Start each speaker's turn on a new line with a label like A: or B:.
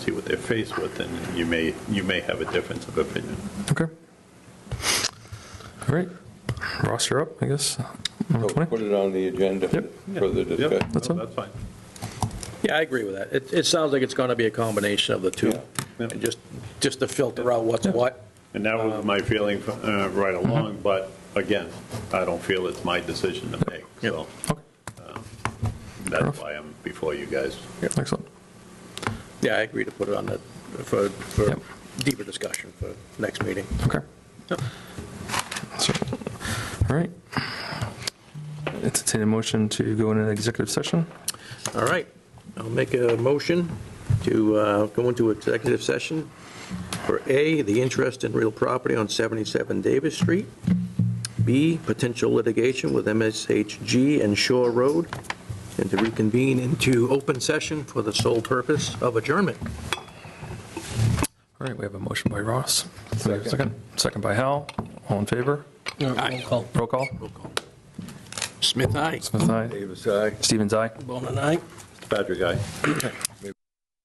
A: see what they're faced with, and you may, you may have a difference of opinion.
B: Okay. All right. Ross, you're up, I guess. Number
C: So
B: 20?
C: Put it on the agenda for
B: Yep.
C: further
A: Yep,
C: discussion.
B: That's
A: no,
B: fine.
A: that's fine.
D: Yeah, I agree with that. It, it sounds like it's going to be a combination of the two,
A: Yeah.
D: and just, just to filter out what's what.
A: And that was my feeling uh, right along, but again, I don't feel it's my decision to make, so
B: Okay.
A: that's why I'm before you guys.
B: Excellent.
D: Yeah, I agree to put it on the, for, for
B: Yep.
D: deeper discussion for next meeting.
B: Okay.
D: Yep.
B: So, All right. Entertain a motion to go in an executive session.
D: All right, I'll make a motion to uh, go into executive session for A, the interest in real property on 77 Davis Street, B, potential litigation with MSHG and Shore Road, and to reconvene into open session for the sole purpose of adjournment.
B: All right, we have a motion by Ross. Second. Second by Hal. All in favor? Roll call.
D: Smith, aye.
B: Smith, aye.
C: Davis, aye.
B: Stevens, aye.
D: Bonin, aye.
A: Patrick, I.